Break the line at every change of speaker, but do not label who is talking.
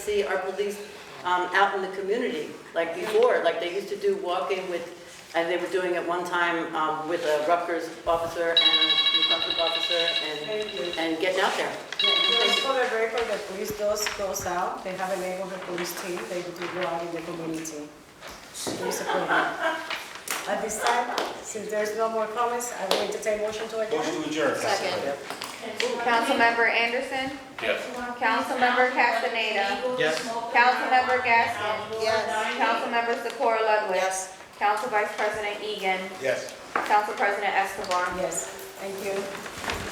see our police um, out in the community, like before, like they used to do walking with, and they were doing it one time um, with a Rutgers officer and a New Brunswick officer, and,
Thank you.
and getting out there.
Just for the record, the police does goes out, they have a neighborhood police team, they do go out in the community. Police approval. At this time, since there's no more comments, I will entertain motion to adjourn.
Motion to adjourn.
Second.
Councilmember Anderson.
Yes.
Councilmember Castaneda.
Yes.
Councilmember Gaskin.
Yes.
Councilmember Secor Ludwig.
Yes.
Council Vice President Egan.
Yes.
Council President Escobar.
Yes, thank you.